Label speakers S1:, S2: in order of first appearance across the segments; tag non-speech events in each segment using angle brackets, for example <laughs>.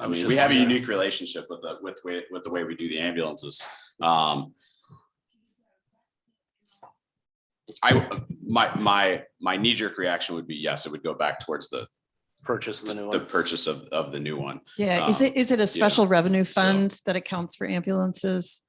S1: I mean, we have a unique relationship with the, with, with, with the way we do the ambulances. Um. I, my, my, my knee jerk reaction would be, yes, it would go back towards the,
S2: Purchase of the new
S1: the
S2: one.
S1: purchase of, of the new one.
S3: Yeah, is
S1: Um,
S3: it, is it a special revenue fund that accounts for ambulances?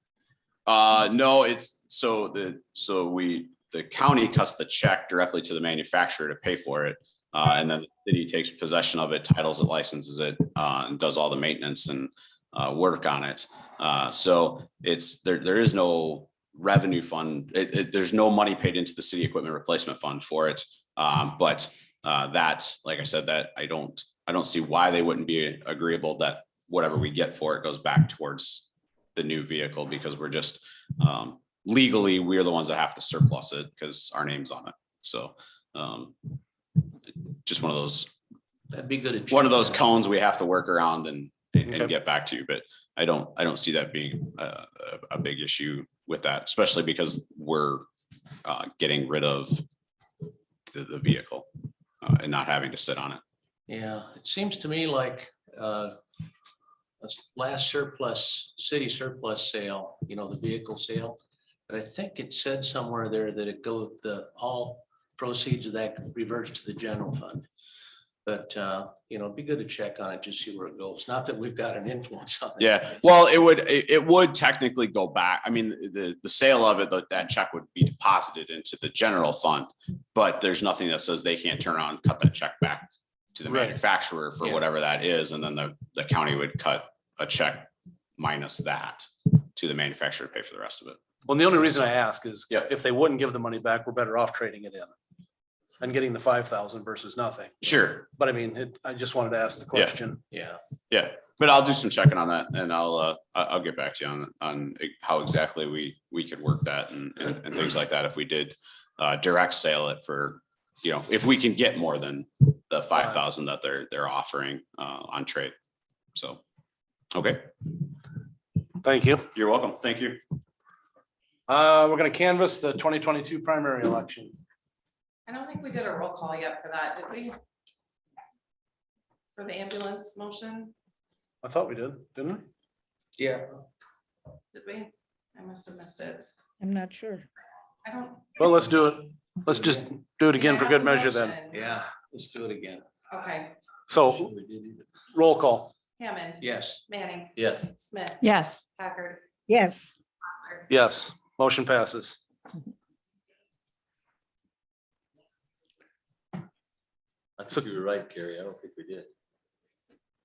S1: Uh, no, it's, so the, so we, the county cuts the check directly to the manufacturer to pay for it. Uh, and then the city takes possession of it, titles it, licenses it, uh, and does all the maintenance and, uh, work on it. Uh, so it's, there, there is no revenue fund. It, it, there's no money paid into the city equipment replacement fund for it. Um, but, uh, that's, like I said, that I don't, I don't see why they wouldn't be agreeable that whatever we get for it goes back towards the new vehicle because we're just um legally, we're the ones that have to surplus it because our name's on it. So um just one of those,
S4: That'd be good.
S1: one of those cones we have to work around and and
S2: Okay.
S1: get back to, but I don't, I don't see that being a a a big issue with that, especially because we're uh getting rid of the the vehicle uh, and not having to sit on it.
S4: Yeah, it seems to me like uh, this last surplus, city surplus sale, you know, the vehicle sale. But I think it said somewhere there that it go, the, all proceeds of that reverts to the general fund. But, uh, you know, it'd be good to check on it, just see where it goes. Not that we've got an influence on it.
S1: Yeah, well, it would, it, it would technically go back. I mean, the, the sale of it, that, that check would be deposited into the general fund. But there's nothing that says they can't turn on, cut that check back to the
S2: Right.
S1: manufacturer for
S4: Yeah.
S1: whatever that is, and then the, the county would cut a check minus that to the manufacturer to pay for the rest of it.
S2: Well, the only reason I ask is
S1: Yeah.
S2: if they wouldn't give the money back, we're better off trading it in. And getting the five thousand versus nothing.
S1: Sure,
S2: But I mean, it, I just wanted to ask the
S1: Yeah.
S2: question.
S4: Yeah,
S1: yeah, but I'll do some checking on that and I'll, uh, I- I'll get back to you on, on how exactly we, we could work that and, and and things like that if we did uh, direct sale it for, you know, if we can get more than the five thousand that they're, they're offering uh, on trade. So, okay,
S2: Thank you.
S1: you're welcome. Thank you.
S2: Uh, we're gonna canvass the twenty twenty-two primary election.
S5: I don't think we did a roll call yet for that, did we? For the ambulance motion,
S2: I thought we did, didn't we?
S4: yeah.
S5: did we? I must have missed it.
S3: I'm not sure.
S5: I don't.
S2: Well, let's do it. Let's just do it again for good measure then.
S4: Yeah, let's do it again.
S5: Okay,
S2: So roll call.
S5: Hammond.
S4: Yes.
S5: Manning.
S4: Yes.
S5: Smith.
S3: Yes.
S5: Packard.
S6: Yes,
S5: Butler.
S2: Yes, motion passes.
S7: I think you were right, Gary. I don't think we did.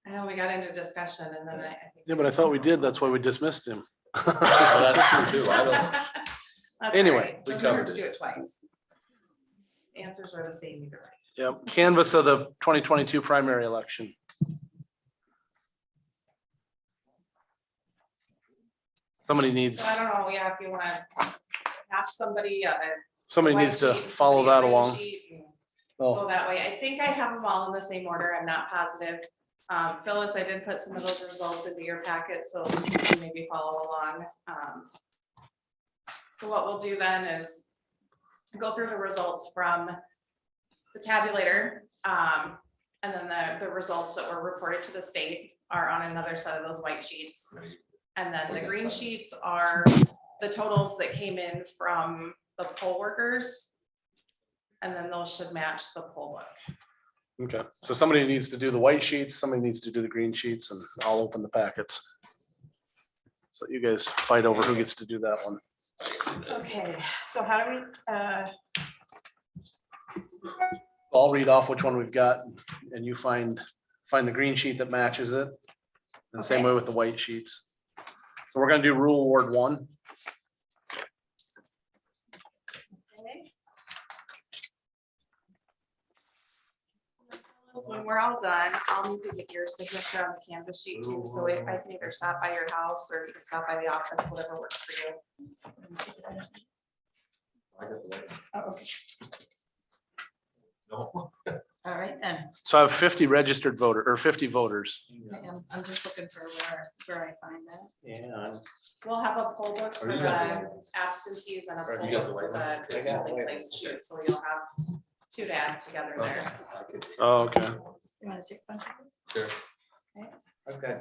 S5: I know we got into discussion and then I. think-
S2: Yeah, but I thought we did. That's why we dismissed him. <laughs>
S7: Well, that's true, too. I don't-
S5: <laughs> That's all
S2: Anyway,
S5: right.
S7: we
S5: Doesn't hurt
S7: covered
S5: to
S7: it.
S5: Do it twice. Answers are the same either way.
S2: Yeah, canvas of the twenty twenty-two primary election. Somebody needs,
S5: So I don't know, yeah, if you want to ask somebody. uh,
S2: somebody
S5: white
S2: needs to
S5: sheet,
S2: follow
S5: somebody
S2: that
S5: a red
S2: along.
S5: sheet, and Go
S2: Oh,
S5: that way. I think I have them all in the same order. I'm not positive. Um, Phyllis, I did put some of those results into your packet, so you can maybe follow along. Um, So what we'll do then is go through the results from the tabulator. um, and then the, the results that were reported to the state are on another set of those white sheets. And then the green sheets are the totals that came in from the poll workers. And then those should match the poll book.
S2: okay. So somebody needs to do the white sheets, somebody needs to do the green sheets, and I'll open the packets. So you guys fight over who gets to do that one.
S5: Okay, so how do we, uh,
S2: I'll read off which one we've got and you find, find the green sheet that matches it. And the same way with the white sheets. So we're gonna do rule ward one.
S5: when we're all done, I'll need to get your signature on the canvas sheet too, so if I can either stop by your house or you can stop by the office, whatever works for you. Oh, okay. All right, then.
S2: So I have fifty registered voter or fifty voters.
S5: I am- I'm just looking for where, where I find that.
S4: Yeah.
S5: We'll have a poll book for
S7: Oh, you got
S5: the absentees and a poll
S7: Or have Oh, you got the
S5: book for
S7: white
S5: the
S7: one? I got
S5: polling
S7: white
S5: place
S7: one.
S5: too, so you'll have two to add together there.
S2: Oh, Okay.
S5: You wanna take a bunch of these?
S7: Sure.
S6: I've got